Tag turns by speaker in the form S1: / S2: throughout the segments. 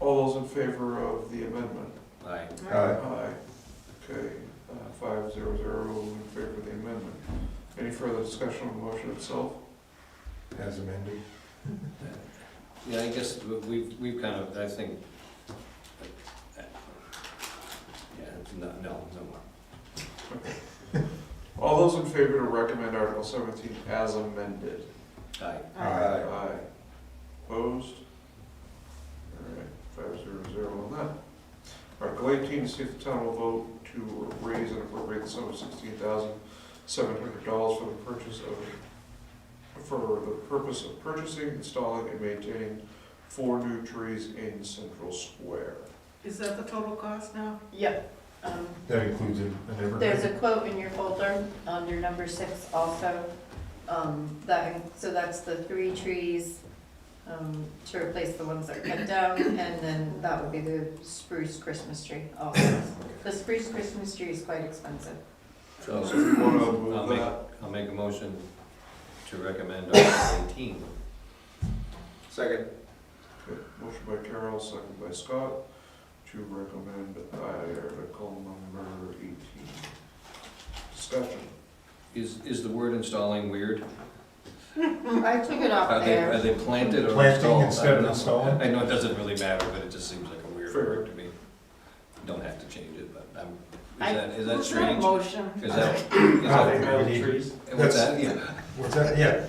S1: All those in favor of the amendment?
S2: Aye.
S3: Aye.
S1: Aye. Okay, uh, five zero zero in favor of the amendment. Any further discussion on the motion itself?
S3: as amended.
S2: Yeah, I guess we- we've, we've kind of, I think, yeah, no, no, no more.
S1: All those in favor to recommend Article seventeen as amended?
S2: Aye.
S3: Aye.
S1: Aye. Opposed? All right, five zero zero on that. Article eighteen, to see if the town will vote to raise and appropriate the sum of sixteen thousand seven hundred dollars for the purchase of, for the purpose of purchasing, installing, and maintaining four new trees in Central Square.
S4: Is that the total cost now?
S5: Yep. Um,
S3: That includes an an
S5: There's
S3: evergreen.
S5: a quote in your folder under number six also. Um, That, so that's the three trees um, to replace the ones that are cut down. And then that would be the spruce Christmas tree also. The spruce Christmas tree is quite expensive.
S2: So
S1: So if you wanna move
S2: Oh. I'll make-
S1: that,
S2: I'll make a motion to recommend Article 18.
S3: Second.
S1: okay, motion by Carol, second by Scott, to recommend Article number eighteen. Discussion.
S2: Is, is the word installing weird?
S5: I took it
S2: Are
S5: off
S2: they, are
S5: there.
S2: they planted or installed?
S3: Planting
S2: I
S3: instead of
S2: don't know.
S3: installing?
S2: I know it doesn't really matter, but it just seems like a weird
S1: Fair.
S2: word to me. Don't have to change it, but I'm,
S4: I-
S2: is that, is that
S4: It's not a
S2: strange?
S4: motion.
S2: Is that, is
S3: I
S2: that,
S3: think we need-
S1: trees?
S2: what's that, yeah,
S3: What's that, yeah.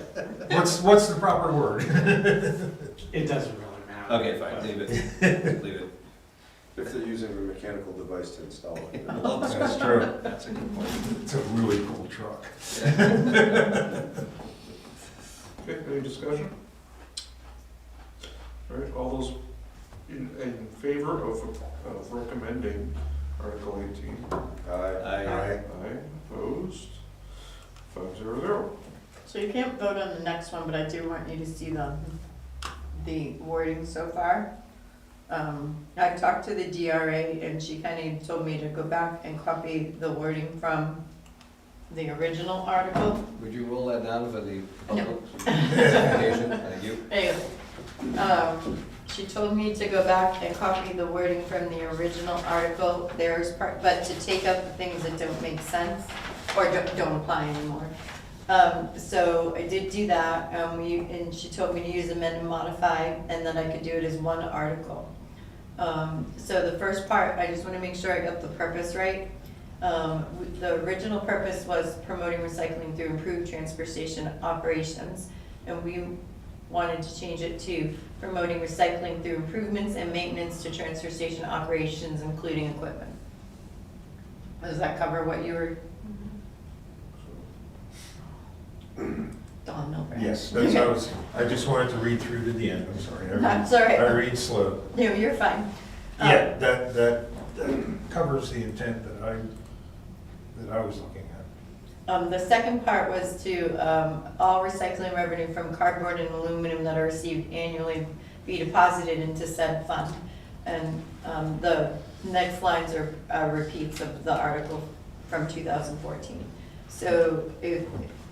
S3: What's, what's the proper word?
S6: It doesn't really matter.
S2: okay, fine, leave it, leave it,
S7: If they're using a mechanical device to install it.
S2: Well,
S3: That's true.
S2: that's a good point.
S3: It's a really cool truck.
S1: Okay, any discussion? All right, all those in, in favor of, of recommending Article eighteen?
S7: Aye.
S2: I,
S3: Aye.
S1: Aye, opposed? Five zero zero.
S5: So you can't vote on the next one, but I do want you to see the, the wording so far. Um, I talked to the DRA and she kind of told me to go back and copy the wording from the original article.
S2: would you roll that down for the public?
S5: No.
S2: Application, thank you.
S5: Anyway, um, she told me to go back and copy the wording from the original article, there's part, but to take out the things that don't make sense or don't, don't apply anymore. Um, so I did do that, um, we, and she told me to use amend and modify, and then I could do it as one article. Um, so the first part, I just wanna make sure I got the purpose right. Um, w- the original purpose was promoting recycling through improved transfer station operations. And we wanted to change it to promoting recycling through improvements and maintenance to transfer station operations, including equipment. Does that cover what you were, Don Milburn?
S3: Mm-hmm. Yes, that's, I was, I just wanted to read through to the end, I'm sorry. I read-
S5: That's all right. Oh.
S3: I read slow.
S5: No, you're fine. Um,
S3: Yeah, that, that that covers the intent that I, that I was looking at.
S5: Um, the second part was to, um, all recycling revenue from cardboard and aluminum that are received annually be deposited into said fund. And, um, the next lines are, are repeats of the article from two thousand fourteen. So if,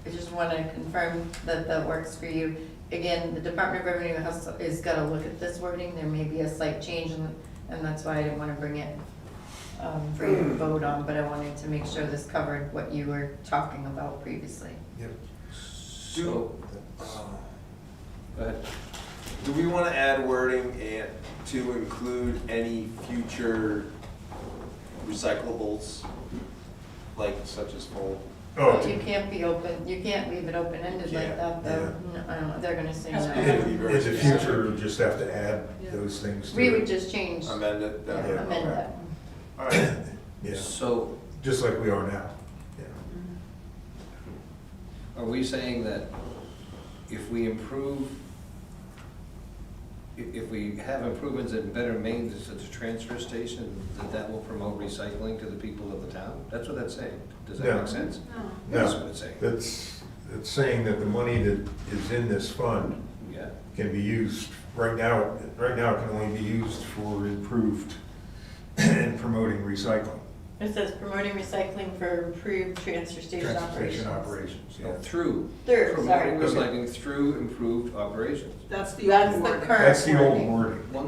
S5: I just wanna confirm that that works for you. Again, the Department of Revenue has, is gotta look at this wording, there may be a slight change and, and that's why I didn't wanna bring it um, for you to vote on, but I wanted to make sure this covered what you were talking about previously.
S3: Yep.
S2: So, um, go ahead.
S7: Do we want to add wording and to include any future recyclables, like such as full?
S3: Oh,
S5: You can't be open, you can't leave it open-ended like
S7: Yeah,
S5: that, though. No, I don't, they're gonna say no.
S7: Yeah.
S3: in in the future, we'll just have to add those things to
S5: We would
S3: it.
S5: just change, yeah,
S7: Amend it?
S3: Yeah.
S7: Okay.
S5: amend that.
S3: All right. Yeah,
S2: so
S3: just like we are now. Yeah.
S2: Are we saying that if we improve, i- if we have improvements and better maintenance at the transfer station, that that will promote recycling to the people of the town? That's what that's saying. Does that
S3: Yeah.
S2: make sense?
S4: No.
S2: That's
S3: No.
S2: what it's saying.
S3: That's, that's saying that the money that is in this fund
S2: Yeah,
S3: can be used, right now, right now it can only be used for improved and promoting recycling.
S5: It says promoting recycling for improved transfer station
S3: Transportation
S5: operations.
S3: operations, yeah.
S2: through,
S5: Third, sorry.
S2: promoting recycling through improved operations.
S4: That's the
S5: That's
S4: old
S5: the
S4: wording.
S5: current.
S3: That's the old
S5: wording.
S3: wording.